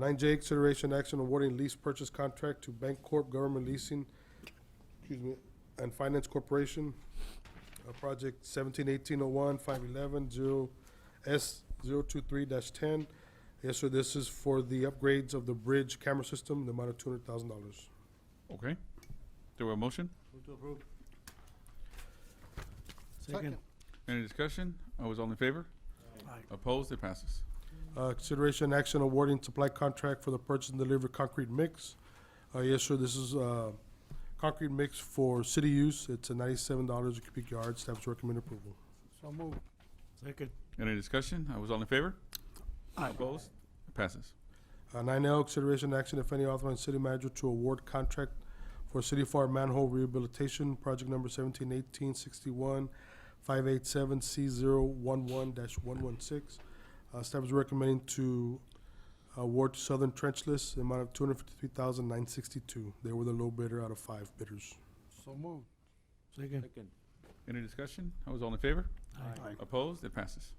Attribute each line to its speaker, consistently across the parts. Speaker 1: Nine J, consideration action awarding lease purchase contract to Bank Corp Government Leasing, excuse me, and Finance Corporation, uh, project seventeen eighteen oh one, five eleven, zero, S zero two three dash ten. Yes, sir, this is for the upgrades of the bridge camera system, the amount of two hundred thousand dollars.
Speaker 2: Okay. Do we have a motion?
Speaker 3: Second.
Speaker 2: Any discussion? Always all in favor?
Speaker 3: Aye.
Speaker 2: Opposed? It passes.
Speaker 1: Uh, consideration action awarding supply contract for the purchase and delivery concrete mix. Uh, yes, sir, this is, uh, concrete mix for city use. It's a ninety-seven dollars a cubic yard. Staff's recommend approval.
Speaker 3: So move. Second.
Speaker 2: Any discussion? Always all in favor?
Speaker 3: Aye.
Speaker 2: Opposed? It passes.
Speaker 1: Uh, nine L, consideration action, if any, authorizing city manager to award contract for city farm manhole rehabilitation, project number seventeen eighteen sixty-one five eight seven C zero one one dash one one six. Uh, staff is recommending to award to Southern Trenchless, the amount of two hundred fifty-three thousand nine sixty-two. They were the low bidder out of five bidders.
Speaker 3: So move. Second.
Speaker 2: Any discussion? Always all in favor?
Speaker 3: Aye.
Speaker 2: Opposed? It passes.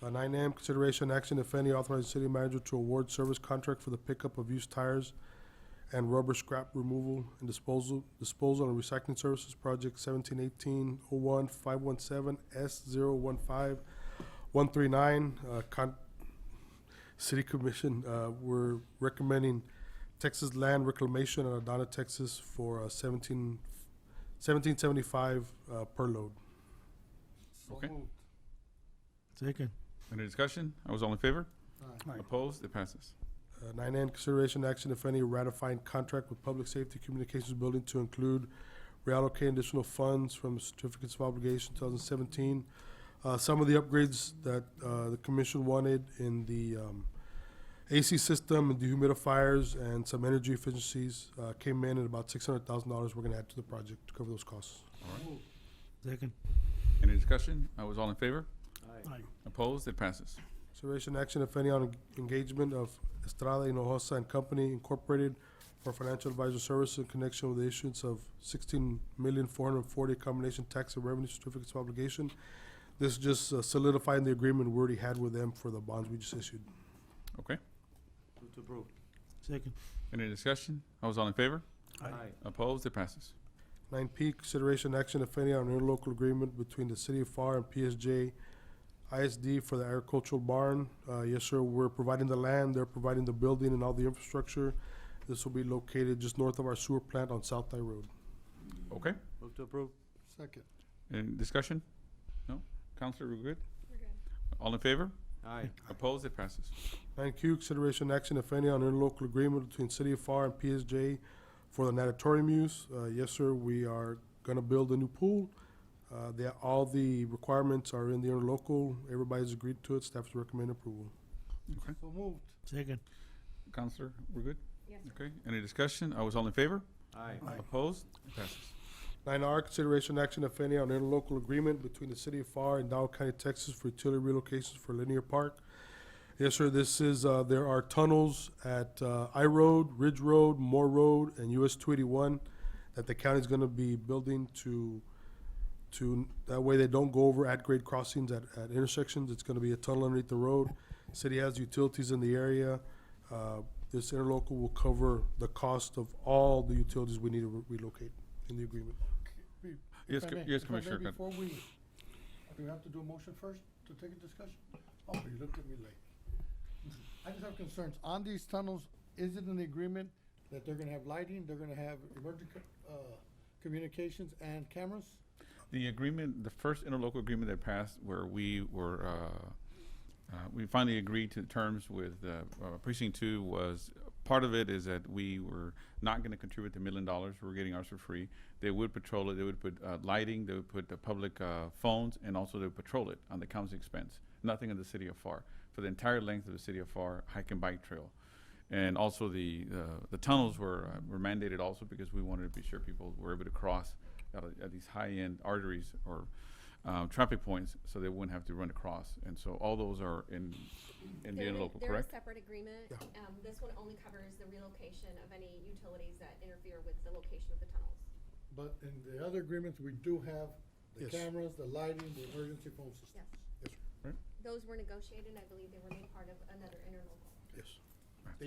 Speaker 1: Uh, Nine M, consideration action, if any, authorizing city manager to award service contract for the pickup of used tires and rubber scrap removal and disposal, disposal and recycling services project seventeen eighteen oh one five one seven S zero one five one three nine. Uh, con, city commission, uh, we're recommending Texas Land Reclamation in Adana, Texas for uh, seventeen, seventeen seventy-five, uh, per load.
Speaker 2: Okay.
Speaker 3: Second.
Speaker 2: Any discussion? Always all in favor?
Speaker 3: Aye.
Speaker 2: Opposed? It passes.
Speaker 1: Uh, Nine N, consideration action, if any, ratifying contract with Public Safety Communications Building to include reallocating additional funds from certificates of obligation two thousand seventeen. Uh, some of the upgrades that, uh, the commission wanted in the, um, AC system and dehumidifiers and some energy efficiencies, uh, came in at about six hundred thousand dollars we're gonna add to the project to cover those costs.
Speaker 3: Second.
Speaker 2: Any discussion? Always all in favor?
Speaker 3: Aye.
Speaker 2: Opposed? It passes.
Speaker 1: Consideration action, if any, on en- engagement of Estrada Hinojosa and Company Incorporated for financial advisor services in connection with the issuance of sixteen million four hundred and forty combination tax and revenue certificates of obligation. This is just uh, solidifying the agreement we already had with them for the bonds we just issued.
Speaker 2: Okay.
Speaker 3: Second.
Speaker 2: Any discussion? Always all in favor?
Speaker 3: Aye.
Speaker 2: Opposed? It passes.
Speaker 1: Nine P, consideration action, if any, on interlocal agreement between the City of FAR and PSJ ISD for the agricultural barn. Uh, yes, sir, we're providing the land, they're providing the building and all the infrastructure. This will be located just north of our sewer plant on South Thai Road.
Speaker 2: Okay.
Speaker 3: Move to approve. Second.
Speaker 2: Any discussion? No? Counselor, we're good? All in favor?
Speaker 3: Aye.
Speaker 2: Opposed? It passes.
Speaker 1: Nine Q, consideration action, if any, on interlocal agreement between City of FAR and PSJ for the natatorium use. Uh, yes, sir, we are gonna build a new pool. Uh, they, all the requirements are in the interlocal, everybody's agreed to it, staff recommend approval.
Speaker 2: Okay.
Speaker 3: So moved. Second.
Speaker 2: Counselor, we're good?
Speaker 4: Yes.
Speaker 2: Okay. Any discussion? I was all in favor?
Speaker 3: Aye.
Speaker 2: Opposed? It passes.
Speaker 1: Nine R, consideration action, if any, on interlocal agreement between the city of FAR and Dow County, Texas for utility relocations for Linear Park. Yes, sir, this is, uh, there are tunnels at, uh, I Road, Ridge Road, Moore Road, and US two eighty-one that the county's gonna be building to, to, that way they don't go over at-grade crossings at, at intersections. It's gonna be a tunnel underneath the road. City has utilities in the area. Uh, this interlocal will cover the cost of all the utilities we need to re- relocate in the agreement.
Speaker 2: Yes,
Speaker 5: If I
Speaker 2: Co-
Speaker 5: may-
Speaker 2: yes,
Speaker 5: if I may,
Speaker 2: Commissioner Gat-
Speaker 5: Before we, do we have to do a motion first to take a discussion? Oh, you looked at me late. I just have concerns. On these tunnels, is it an agreement that they're gonna have lighting, they're gonna have emergency, co- uh, communications and cameras?
Speaker 2: The agreement, the first interlocal agreement that passed where we were, uh, uh, we finally agreed to terms with, uh, uh, precinct two was, part of it is that we were not gonna contribute the million dollars, we were getting ours for free. They would patrol it, they would put, uh, lighting, they would put the public, uh, phones, and also they would patrol it on the county's expense. Nothing in the city of FAR, for the entire length of the city of FAR hike and bike trail. And also the, uh, the tunnels were, uh, were mandated also because we wanted to be sure people were able to cross at, a- at these high-end arteries or um, traffic points, so they wouldn't have to run across. And so all those are in, in the
Speaker 4: They're in-
Speaker 2: interlocal,
Speaker 4: They're a
Speaker 2: correct?
Speaker 4: separate agreement. Um, this one only covers the relocation of any utilities that interfere with the location of the tunnels.
Speaker 5: But in the other agreements, we do have the
Speaker 1: Yes.
Speaker 5: cameras, the lighting, the emergency phone system.
Speaker 4: Yes.
Speaker 1: Yes,
Speaker 2: Right.
Speaker 4: Those were negotiated, and I believe they were made part of another interlocal.
Speaker 1: yes.